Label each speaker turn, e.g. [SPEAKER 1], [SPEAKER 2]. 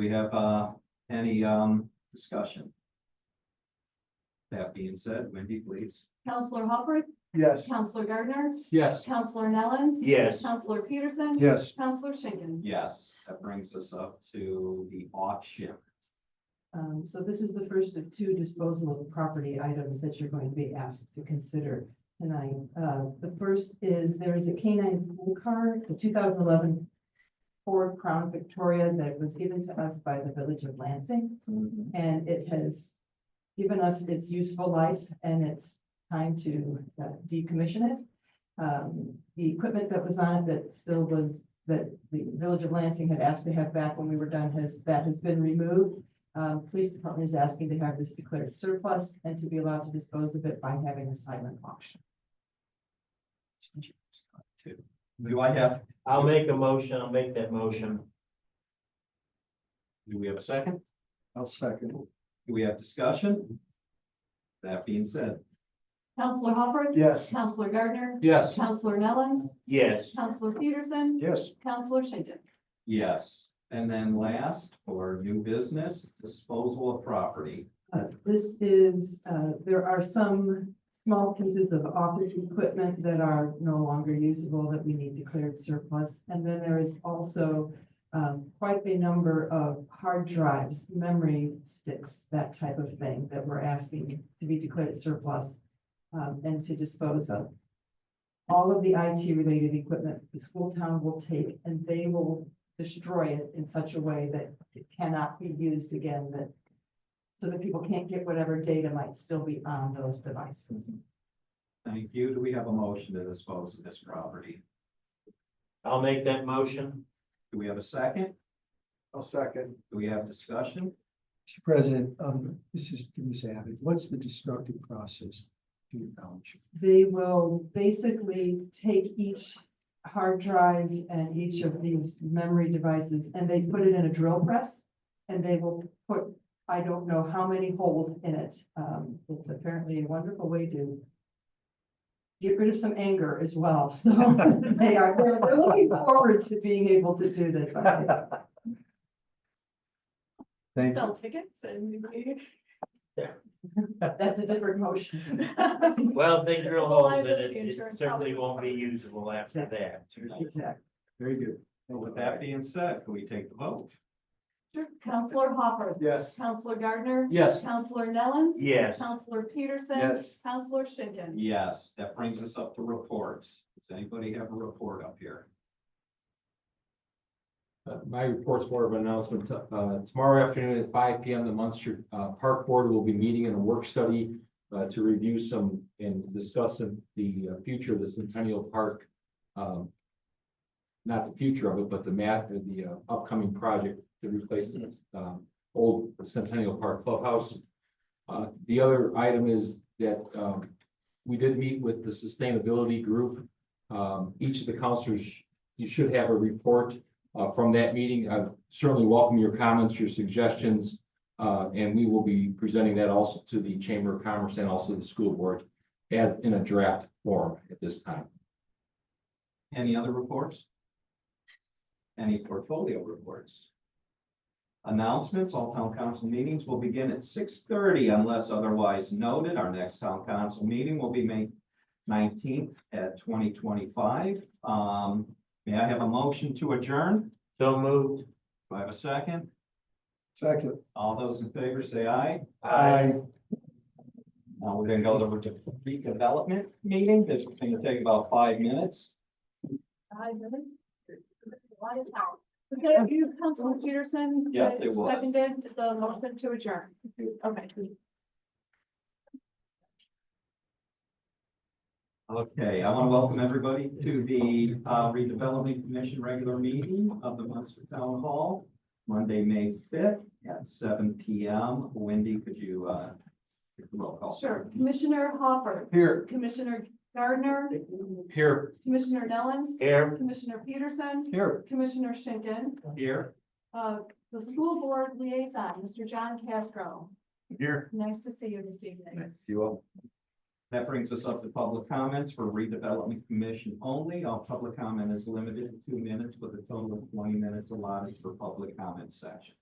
[SPEAKER 1] We have, uh, any, um, discussion? That being said, Wendy, please.
[SPEAKER 2] Counselor Hopper,
[SPEAKER 3] Yes.
[SPEAKER 2] Counselor Gardner,
[SPEAKER 3] Yes.
[SPEAKER 2] Counselor Nellens.
[SPEAKER 3] Yes.
[SPEAKER 2] Counselor Peterson.
[SPEAKER 3] Yes.
[SPEAKER 2] Counselor Schinkin.
[SPEAKER 1] Yes, that brings us up to the auction.
[SPEAKER 4] Um, so this is the first of two disposal of property items that you're going to be asked to consider tonight. Uh, the first is there is a canine pool car, the two thousand eleven Ford Crown Victoria that was given to us by the village of Lansing. And it has given us its useful life and it's time to uh, decommission it. Um, the equipment that was on it that still was, that the village of Lansing had asked to have back when we were done has, that has been removed. Um, police department is asking to have this declared surplus and to be allowed to dispose of it by having a silent auction.
[SPEAKER 1] Do I have,
[SPEAKER 5] I'll make a motion, I'll make that motion.
[SPEAKER 1] do we have a second?
[SPEAKER 3] I'll second.
[SPEAKER 1] Do we have discussion? That being said,
[SPEAKER 2] Counselor Hopper.
[SPEAKER 3] Yes.
[SPEAKER 2] Counselor Gardner.
[SPEAKER 3] Yes.
[SPEAKER 2] Counselor Nellens.
[SPEAKER 5] Yes,
[SPEAKER 2] Counselor Peterson.
[SPEAKER 3] Yes.
[SPEAKER 2] Counselor Schinkin.
[SPEAKER 1] yes. And then last, for new business, disposal of property.
[SPEAKER 4] Uh, This is, uh, there are some small pieces of office equipment that are no longer usable that we need declared surplus. And then there is also um, quite a number of hard drives, memory sticks, that type of thing that we're asking to be declared surplus um, and to dispose of. All of the IT related equipment, the school town will take and they will destroy it in such a way that it cannot be used again, that so that people can't get whatever data might still be on those devices.
[SPEAKER 1] Thank you. Do we have a motion to dispose of this property?
[SPEAKER 5] I'll make that motion.
[SPEAKER 1] Do we have a second?
[SPEAKER 3] I'll second.
[SPEAKER 1] Do we have discussion?
[SPEAKER 3] Mr. President, um, this is, give me a second. What's the destructive process to your knowledge?
[SPEAKER 4] They will basically take each hard drive and each of these memory devices and they put it in a drill press. And they will put, I don't know how many holes in it. Um, it's apparently a wonderful way to get rid of some anger as well. So they are, they're they're looking forward to being able to do this. I think.
[SPEAKER 3] Thank you.
[SPEAKER 2] Sell tickets and.
[SPEAKER 4] That's a different motion.
[SPEAKER 5] Well, if they drill
[SPEAKER 2] Well,
[SPEAKER 5] holes in it,
[SPEAKER 2] liability
[SPEAKER 5] it
[SPEAKER 2] insurance
[SPEAKER 5] certainly
[SPEAKER 2] probably-
[SPEAKER 5] won't be usable after that.
[SPEAKER 4] Exactly.
[SPEAKER 3] Very good.
[SPEAKER 1] So With that being said, can we take the vote?
[SPEAKER 2] Counselor Hopper.
[SPEAKER 3] Yes.
[SPEAKER 2] Counselor Gardner.
[SPEAKER 3] Yes.
[SPEAKER 2] Counselor Nellens.
[SPEAKER 5] Yes,
[SPEAKER 2] Counselor Peterson.
[SPEAKER 3] Yes.
[SPEAKER 2] Counselor Schinkin.
[SPEAKER 1] Yes, that brings us up to reports. Does anybody have a report up here?
[SPEAKER 6] Uh, My report's more of an announcement. Uh, Tomorrow afternoon at five P M, the Munster uh, Park Board will be meeting in a work study uh, to review some and discuss some- the uh, future of the Centennial Park. um, Not the future of it, but the math, the uh, upcoming project to replace the um, old Centennial Park Clubhouse. Uh, The other item is that um, we did meet with the Sustainability Group. Um, Each of the counselors, you should have a report uh, from that meeting. I certainly welcome your comments, your suggestions. Uh, and we will be presenting that also to the Chamber of Commerce and also the school board as in a draft form at this time.
[SPEAKER 1] Any other reports? Any portfolio reports? Announcements, all town council meetings will begin at six thirty unless otherwise noted. Our next town council meeting will be May nineteenth at twenty twenty-five. Um, may I have a motion to adjourn?
[SPEAKER 5] so moved.
[SPEAKER 1] Do I have a second?
[SPEAKER 3] Second.
[SPEAKER 1] All those in favor say aye. Now Uh, we're gonna go to the redevelopment meeting. This is gonna take about five minutes.
[SPEAKER 2] Five minutes? A lot of time. Okay, you, Councilor Peterson.
[SPEAKER 1] Yes, it was.
[SPEAKER 2] Seconded the motion to adjourn. Okay.
[SPEAKER 1] Okay, I want to welcome everybody to the uh, redevelopment commission regular meeting of the Munster Town Hall, Monday, May fifth at seven P M. Wendy, could you, uh, take the roll call?
[SPEAKER 2] Sure. Commissioner Hopper,
[SPEAKER 3] Here.
[SPEAKER 2] Commissioner Gardner,
[SPEAKER 6] Here,
[SPEAKER 2] Commissioner Nellens,
[SPEAKER 5] Here,
[SPEAKER 2] Commissioner Peterson,
[SPEAKER 3] Here.
[SPEAKER 2] Commissioner Schinkin,
[SPEAKER 1] Here,
[SPEAKER 2] uh, the school board liaison, Mr. John Castro.
[SPEAKER 3] Here.
[SPEAKER 2] Nice to see you this evening.
[SPEAKER 6] you all.
[SPEAKER 1] that brings us up to public comments for redevelopment commission only. All public comment is limited to two minutes with a total of twenty minutes allotted for public comment section.